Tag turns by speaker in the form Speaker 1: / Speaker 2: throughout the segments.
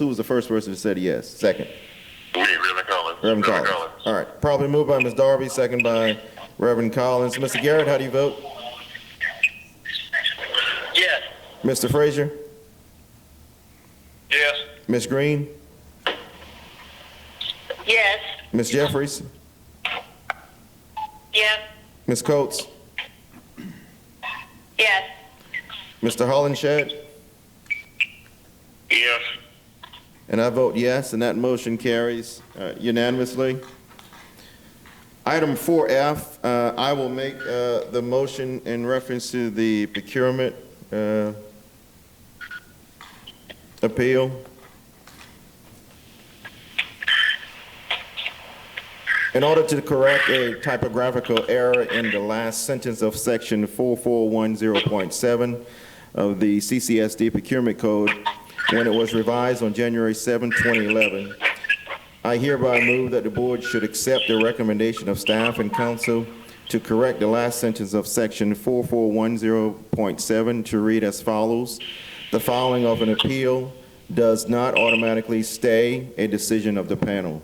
Speaker 1: Who was the first person that said yes? Second?
Speaker 2: We, Reverend Collins.
Speaker 1: Reverend Collins. All right. Probably moved by Ms. Darby, second by Reverend Collins. Mr. Garrett, how do you vote?
Speaker 2: Yes.
Speaker 1: Mr. Frazier?
Speaker 2: Yes.
Speaker 1: Ms. Green?
Speaker 3: Yes.
Speaker 1: Ms. Jeffries?
Speaker 3: Yes.
Speaker 1: Ms. Coates?
Speaker 3: Yes.
Speaker 1: Mr. Hollenshed?
Speaker 2: Yes.
Speaker 1: And I vote yes, and that motion carries uh, unanimously. Item 4F, uh, I will make uh, the motion in reference to the procurement uh, appeal. In order to correct a typographical error in the last sentence of section 4410.7 of the CCSD procurement code, when it was revised on January 7, 2011, I hereby move that the board should accept the recommendation of staff and council to correct the last sentence of section 4410.7 to read as follows. The filing of an appeal does not automatically stay a decision of the panel.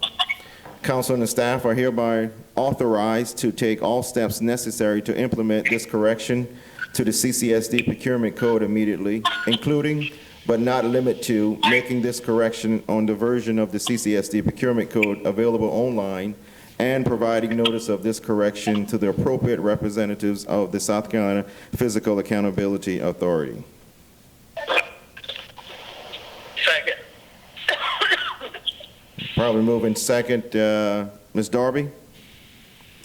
Speaker 1: Council and the staff are hereby authorized to take all steps necessary to implement this correction to the CCSD procurement code immediately, including but not limit to making this correction on the version of the CCSD procurement code available online and providing notice of this correction to the appropriate representatives of the South Carolina Physical Accountability Authority.
Speaker 2: Second.
Speaker 1: Probably moving second, uh, Ms. Darby?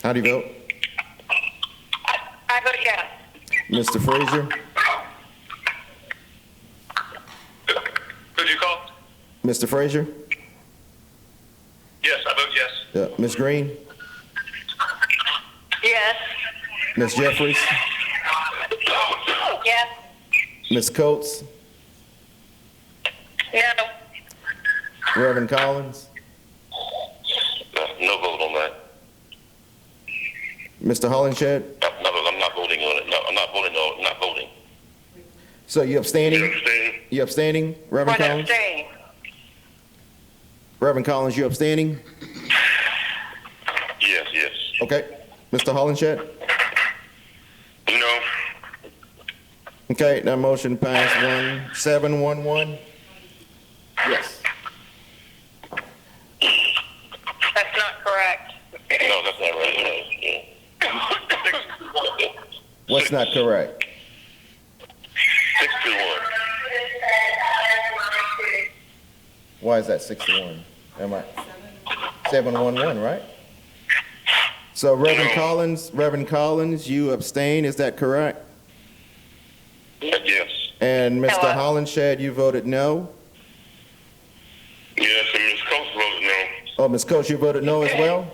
Speaker 1: How do you vote?
Speaker 3: I vote yes.
Speaker 1: Mr. Frazier?
Speaker 2: Who'd you call?
Speaker 1: Mr. Frazier?
Speaker 2: Yes, I vote yes.
Speaker 1: Uh, Ms. Green?
Speaker 3: Yes.
Speaker 1: Ms. Jeffries?
Speaker 3: Yes.
Speaker 1: Ms. Coates?
Speaker 3: No.
Speaker 1: Reverend Collins?
Speaker 2: No, no vote on that.
Speaker 1: Mr. Hollenshed?
Speaker 2: No, no, I'm not voting on it. No, I'm not voting on, not voting.
Speaker 1: So you abstaining?
Speaker 2: understand?
Speaker 1: You abstaining, Reverend
Speaker 3: One
Speaker 1: Collins?
Speaker 3: abstain.
Speaker 1: Reverend Collins, you abstaining?
Speaker 2: Yes, yes.
Speaker 1: Okay. Mr. Hollenshed?
Speaker 2: No.
Speaker 1: Okay, that motion passed one, seven, one, one? Yes.
Speaker 3: That's not correct.
Speaker 2: No, that's not right. Six,
Speaker 1: What's not correct?
Speaker 2: six to one.
Speaker 1: Why is that six to one? Am I? Seven, one, one, right? So Reverend Collins, Reverend Collins, you abstain, is that correct?
Speaker 2: Yes.
Speaker 1: And Mr.
Speaker 3: Hello.
Speaker 1: Hollenshed, you voted no?
Speaker 2: Yes, and Ms. Coates voted no.
Speaker 1: Oh, Ms. Coates, you voted no as well?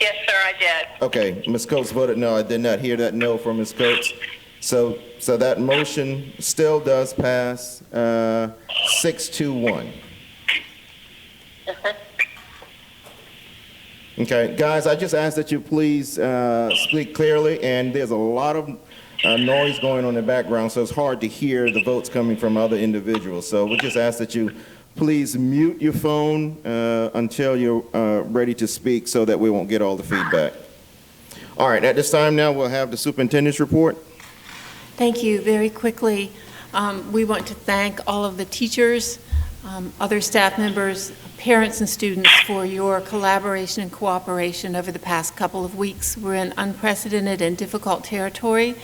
Speaker 3: Yes, sir, I did.
Speaker 1: Okay, Ms. Coates voted no. I did not hear that no from Ms. Coates. So, so that motion still does pass uh, six to one. Okay, guys, I just ask that you please uh, speak clearly, and there's a lot of uh, noise going on in the background, so it's hard to hear the votes coming from other individuals. So we just ask that you please mute your phone uh, until you're uh, ready to speak, so that we won't get all the feedback. All right, at this time now, we'll have the superintendent's report.
Speaker 4: Thank you. Very quickly, um, we want to thank all of the teachers, um, other staff members, parents, and students for your collaboration and cooperation over the past couple of weeks. We're in unprecedented and difficult territory.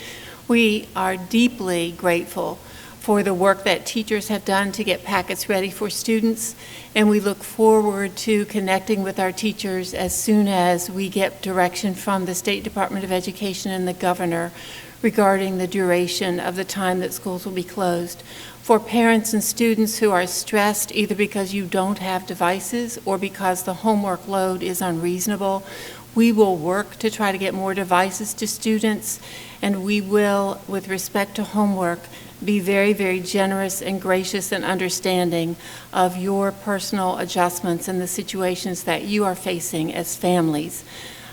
Speaker 4: We are deeply grateful for the work that teachers have done to get packets ready for students, and we look forward to connecting with our teachers as soon as we get direction from the State Department of Education and the governor regarding the duration of the time that schools will be closed. For parents and students who are stressed either because you don't have devices or because the homework load is unreasonable, we will work to try to get more devices to students, and we will, with respect to homework, be very, very generous and gracious and understanding of your personal adjustments and the situations that you are facing as families.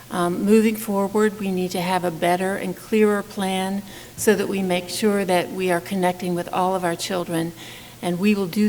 Speaker 4: Um, Moving forward, we need to have a better and clearer plan so that we make sure that we are connecting with all of our children, and we will do